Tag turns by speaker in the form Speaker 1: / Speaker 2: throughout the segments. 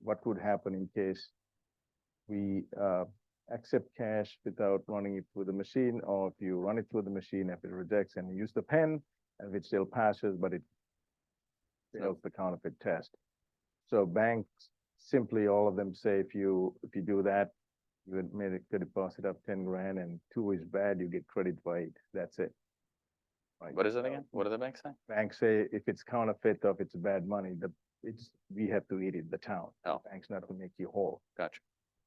Speaker 1: what would happen in case we uh, accept cash without running it through the machine, or if you run it through the machine, if it rejects and you use the pen, if it still passes, but it fails the counterfeit test. So banks, simply all of them say if you, if you do that, you had made a good deposit of ten grand and two is bad, you get credit by eight. That's it. Right,
Speaker 2: What is it
Speaker 1: so-
Speaker 2: again? What do the banks say?
Speaker 1: banks say if it's counterfeit or if it's bad money, the, it's, we have to eat it, the town.
Speaker 2: Oh.
Speaker 1: Bank's not gonna make you whole.
Speaker 2: Gotcha.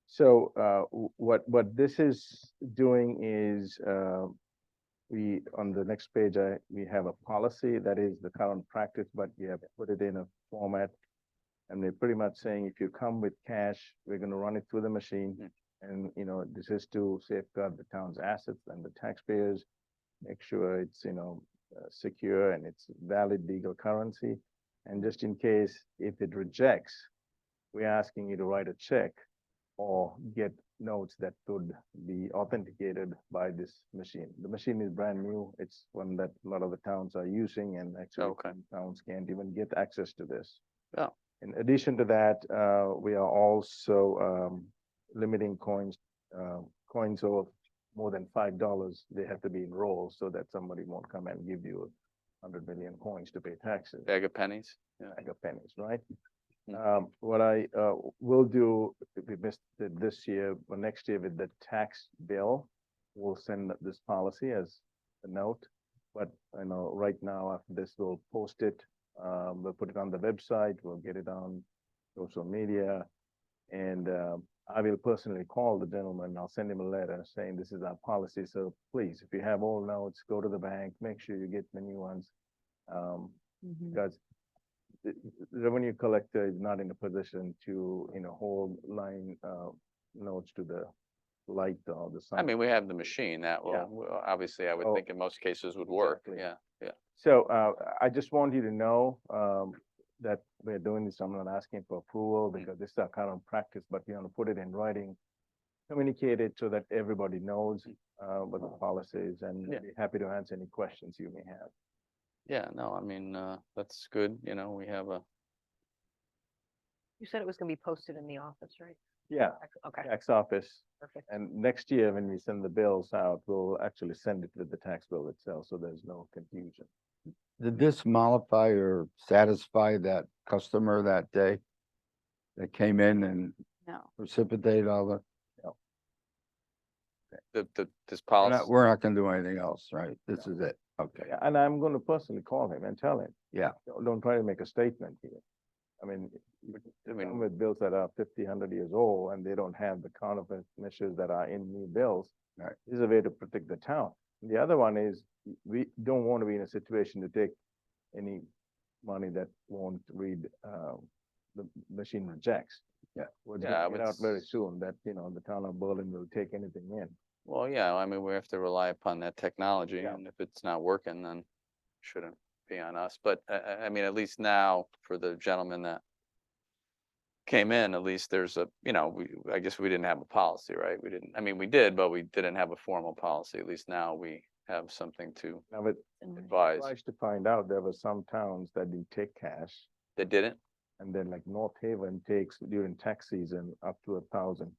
Speaker 1: So, uh, w- what, what this is doing is, uh, we, on the next page, I, we have a policy that is the current practice, but we have put it in a format. And they're pretty much saying if you come with cash, we're gonna run it through the
Speaker 2: Hmm.
Speaker 1: machine. And, you know, this is to safeguard the town's assets and the taxpayers, make sure it's, you know, uh, secure and it's valid legal currency. And just in case, if it rejects, we're asking you to write a check or get notes that could be authenticated by this machine. The machine is brand new. It's one that a lot of the towns are using and actually
Speaker 2: Oh, Okay.
Speaker 1: some towns can't even get access to this.
Speaker 2: Oh.
Speaker 1: In addition to that, uh, we are also, um, limiting coins, uh, coins of more than five dollars, they have to be in rolls so that somebody won't come and give you a hundred million coins to pay taxes
Speaker 2: Bag of pennies?
Speaker 1: bag of pennies, right?
Speaker 2: Mm.
Speaker 1: Um, what I, uh, will do, if we missed it this year, or next year with the tax bill, we'll send this policy as a note. But, you know, right now, after this, we'll post it, um, we'll put it on the website, we'll get it on social media. And, um I will personally call the gentleman, I'll send him a letter saying this is our policy, so please, if you have old notes, go to the bank, make sure you get the new ones. Um, because the the revenue collector is not in a position to, you know, hold line uh notes to the light or the sun.
Speaker 2: I mean, we have the machine that
Speaker 1: Yeah.
Speaker 2: will, will- obviously, I would
Speaker 1: Oh,
Speaker 2: think in most cases would work.
Speaker 1: exactly.
Speaker 2: Yeah.
Speaker 1: So uh I just want you to know um that we're doing this. I'm not asking for approval because this is our current practice, but we want to put it in writing. Communicate it so that everybody knows uh what the policy is and
Speaker 2: Yeah.
Speaker 1: be happy to answer any questions you may have.
Speaker 2: Yeah, no, I mean, uh, that's good. You know, we have a,
Speaker 3: You said it was gonna be posted in the office, right?
Speaker 1: Yeah,
Speaker 3: Ac- Okay,
Speaker 1: tax office
Speaker 3: perfect.
Speaker 1: And next year, when we send the bills out, we'll actually send it with the tax bill itself, so there's no confusion.
Speaker 4: Did this mollify or satisfy that customer that day? That came in and
Speaker 3: No.
Speaker 4: precipitated all the,
Speaker 2: the, the, this
Speaker 4: we're
Speaker 2: policy.
Speaker 4: not, we're not gonna do anything else, right? This is it, okay.
Speaker 1: Yeah, And I'm gonna personally call him and tell him.
Speaker 4: Yeah.
Speaker 1: "Don't- Don't try to make a statement here. I mean,
Speaker 2: I
Speaker 1: some
Speaker 2: mean,
Speaker 1: with bills that are 50, 100 years old, and they don't have the counterfeit measures that are in new bills.
Speaker 4: Right.
Speaker 1: This Is a way to protect the town. The other one is, we don't want to be in a situation to take any money that won't read, uh, the machine rejects.
Speaker 4: Yeah.
Speaker 1: Well, it's
Speaker 2: Yeah,
Speaker 1: gonna
Speaker 2: I
Speaker 1: get
Speaker 2: would
Speaker 1: out very
Speaker 2: s-
Speaker 1: soon that, you know, the town of Berlin will take anything in.
Speaker 2: well, yeah, I mean, we have to rely upon that technology
Speaker 1: Yeah.
Speaker 2: and if it's not working, then shouldn't be on us. But I, I, I mean, at least now for the gentleman that came in, at least there's a, you know, we, I guess we didn't have a policy, right? We didn't, I mean, we did, but we didn't have a formal policy. At least now we have something to
Speaker 1: Now, but
Speaker 2: advise.
Speaker 1: surprised to find out there were some towns that didn't take cash,
Speaker 2: That didn't?
Speaker 1: and then like North Haven takes during tax season up to a thousand,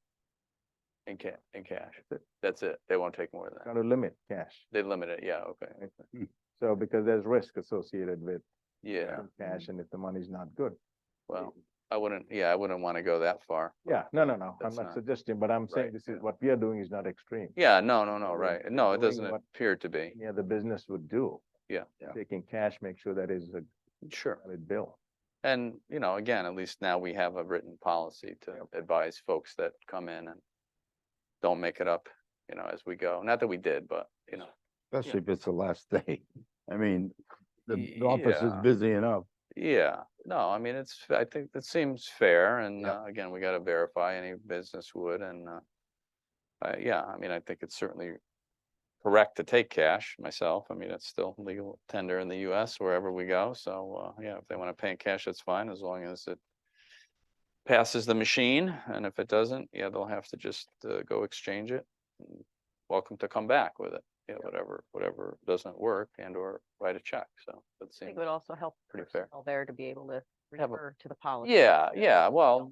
Speaker 2: In ca- in cash.
Speaker 1: Th-
Speaker 2: That's it. They won't take more than that.
Speaker 1: trying to limit cash.
Speaker 2: They limit it. Yeah, okay.
Speaker 1: So because there's risk associated with
Speaker 2: Yeah, Mm-hmm.
Speaker 1: some cash and if the money's not good.
Speaker 2: well, I wouldn't, yeah, I wouldn't want to go that far.
Speaker 1: Yeah, no, no, no, I'm
Speaker 2: That's
Speaker 1: not
Speaker 2: not-
Speaker 1: suggesting, but I'm saying
Speaker 2: right,
Speaker 1: this is
Speaker 2: yeah.
Speaker 1: what we are doing is not extreme.
Speaker 2: Yeah, no, no, no,
Speaker 1: Doing-
Speaker 2: right. No, it
Speaker 1: doing
Speaker 2: doesn't
Speaker 1: what-
Speaker 2: appear to be.
Speaker 1: Yeah, the business would do.
Speaker 2: Yeah.
Speaker 4: Yeah.
Speaker 1: Taking cash, make sure that is a
Speaker 2: Sure.
Speaker 1: valid bill.
Speaker 2: And, you know, again, at least now we have a written policy to
Speaker 1: Yep.
Speaker 2: advise folks that come in and don't make it up, you know, as we go. Not that we did, but, you know,
Speaker 4: Especially if it's the last day. I mean, the
Speaker 2: Y-
Speaker 4: the office is
Speaker 2: yeah.
Speaker 4: busy enough.
Speaker 2: yeah. No, I mean, it's, I think that seems fair. And
Speaker 4: Yep.
Speaker 2: uh, again, we got to verify any business would and, uh, uh, yeah, I mean, I think it's certainly correct to take cash myself. I mean, it's still legal tender in the US wherever we go. So, uh, yeah, if they want to pay in cash, that's fine, as long as it passes the machine. And if it doesn't, yeah, they'll have to just, uh, go exchange it. and Welcome to come back with it, yeah, whatever, whatever doesn't work and or write a check. So that
Speaker 3: I think
Speaker 2: seems,
Speaker 3: it would also help
Speaker 2: pretty fair.
Speaker 3: personnel there to be able to
Speaker 2: Have a-
Speaker 3: refer to the policy.
Speaker 2: yeah, yeah, well,